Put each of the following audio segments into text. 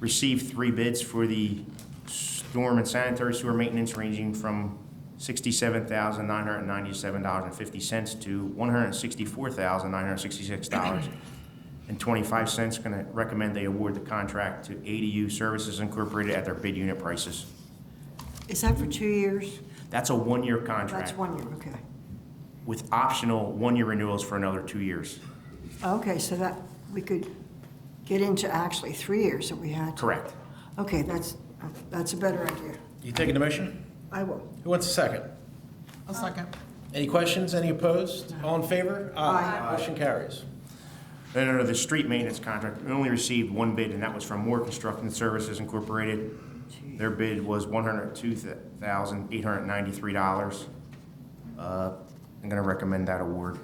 received three bids for the storm and sanitary sewer maintenance ranging from sixty-seven thousand nine hundred and ninety-seven dollars and fifty cents to one hundred and sixty-four thousand nine hundred and sixty-six dollars and twenty-five cents. Gonna recommend they award the contract to ADU Services Incorporated at their bid unit prices. Is that for two years? That's a one-year That's contract one year, okay. with optional one-year renewals for another two years. Okay, so that, we could get into actually three years if we had to. Correct. Okay, that's, that's a better idea. You taking the motion? I will. Who wants a second? I'll second. Any questions? Any opposed? All in favor? Aye. Motion carries. Then under the street maintenance contract, we only received one bid, and that was from Moore Construction Services Incorporated. Their bid was one hundred two thousand eight hundred ninety-three dollars. Uh, I'm gonna recommend that award.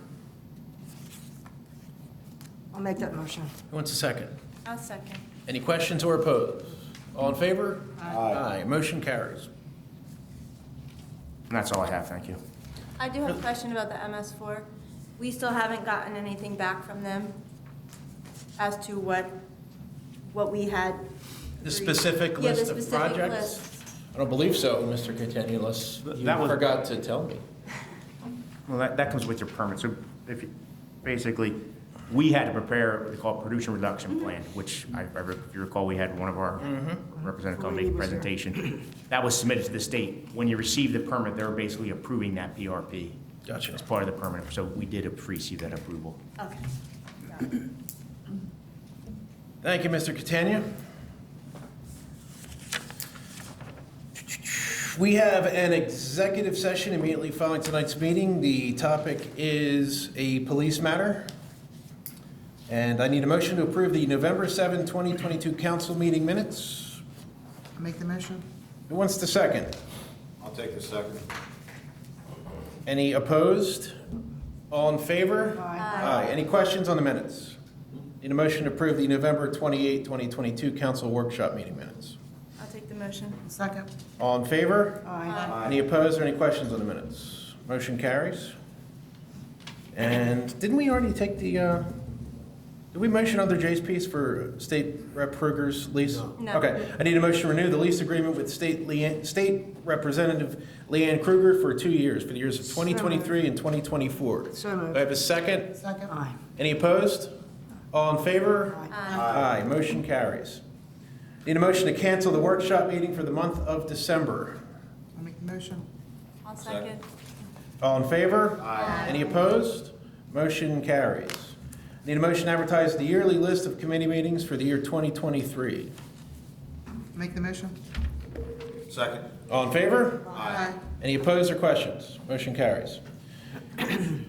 I'll make that motion. Who wants a second? I'll second. Any questions or opposed? All in favor? Aye. Motion carries. And that's all I have, thank you. I do have a question about the MS4. We still haven't gotten anything back from them as to what, what we had. The specific Yeah, the list of specific projects? list. I don't believe so, Mr. Catania, unless Th- you that was- forgot to tell me. Well, that, that comes with your permit, so if, you- basically, we had to prepare what they call pollution reduction plan, which I, I re- if you recall, we had one of our representative come make a presentation. That was submitted to the state. When you receive the permit, they're basically approving that PRP. Gotcha. As part of the permit, so we did ap- receive that approval. Okay. Thank you, Mr. Catania. We have an executive session immediately following tonight's meeting. The topic is a police matter. And I need a motion to approve the November 7, 2022 council meeting minutes. I'll Make the motion. Who wants to second? I'll take the second. Any opposed? All in favor? Aye. Any questions on the minutes? Need a motion to approve the November 28, 2022 council workshop meeting minutes. I'll take the motion. Uh, Second. All in favor? Aye. Any opposed or any questions on the minutes? Motion carries. And didn't we already take the, uh, did we motion under Jay's piece for State Rep. Kruger's lease? No. Okay, I need a motion to renew the lease agreement with State Leanne, State Representative Leanne Kruger for two years, for the years of 2023 and 2024. So Do moved. I have a second? Second. Aye. Any opposed? All in favor? Aye. Aye, motion carries. Need a motion to cancel the workshop meeting for the month of December. I'll make the motion. I'll second. All in favor? Aye. Any opposed? Motion carries. Need a motion to advertise the yearly list of committee meetings for the year 2023. Make the motion. Second. All in favor? Aye. Any opposed or questions? Motion carries.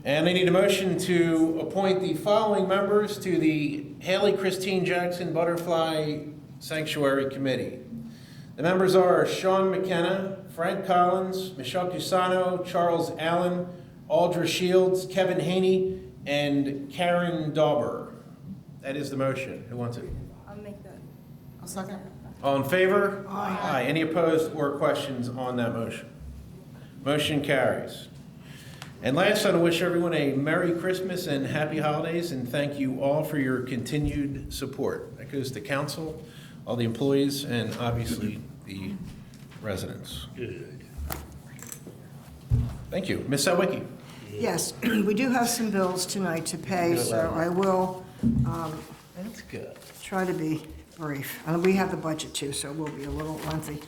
And I need a motion to appoint the following members to the Haley Christine Jackson Butterfly Sanctuary Committee. The members are Sean McKenna, Frank Collins, Michelle Cusano, Charles Allen, Aldra Shields, Kevin Haney, and Karen Dauber. That is the motion. Who wants it? I'll make that. I'll second. All in favor? Aye. Any opposed or questions on that motion? Motion carries. And last, I want to wish everyone a Merry Christmas and Happy Holidays, and thank you all for your continued support. That goes to council, all the employees, and obviously the residents. Good. Thank you. Ms. Sawicki? Yes, we do have some bills tonight to pay, so I will um, That's good. try to be brief. And we have the budget too, so we'll be a little lengthy.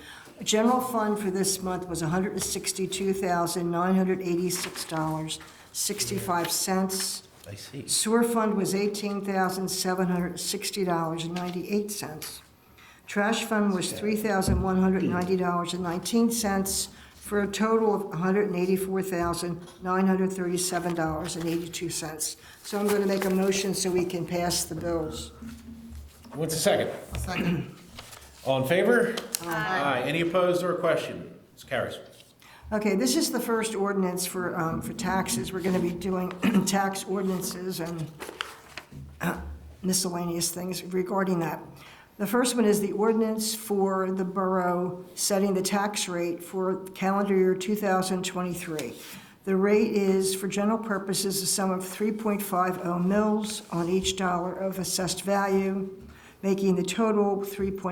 General fund for this month was $162,986.65. I see. Sewer fund was eighteen thousand seven hundred sixty dollars and ninety-eight cents. Trash fund was three thousand one hundred ninety dollars and nineteen cents, for a total of hundred and eighty-four thousand nine hundred thirty-seven dollars and eighty-two cents. So I'm gonna make a motion so we can pass the bills. What's the second? I'll second. All in favor? Aye. Any opposed or question? This carries. Okay, this is the first ordinance for, um, for taxes. We're gonna be doing tax ordinances and uh, miscellaneous things regarding that. The first one is the ordinance for the borough setting the tax rate for calendar year 2023. The rate is, for general purposes, a sum of 3.50 mils on each dollar of assessed value, making the total 3.50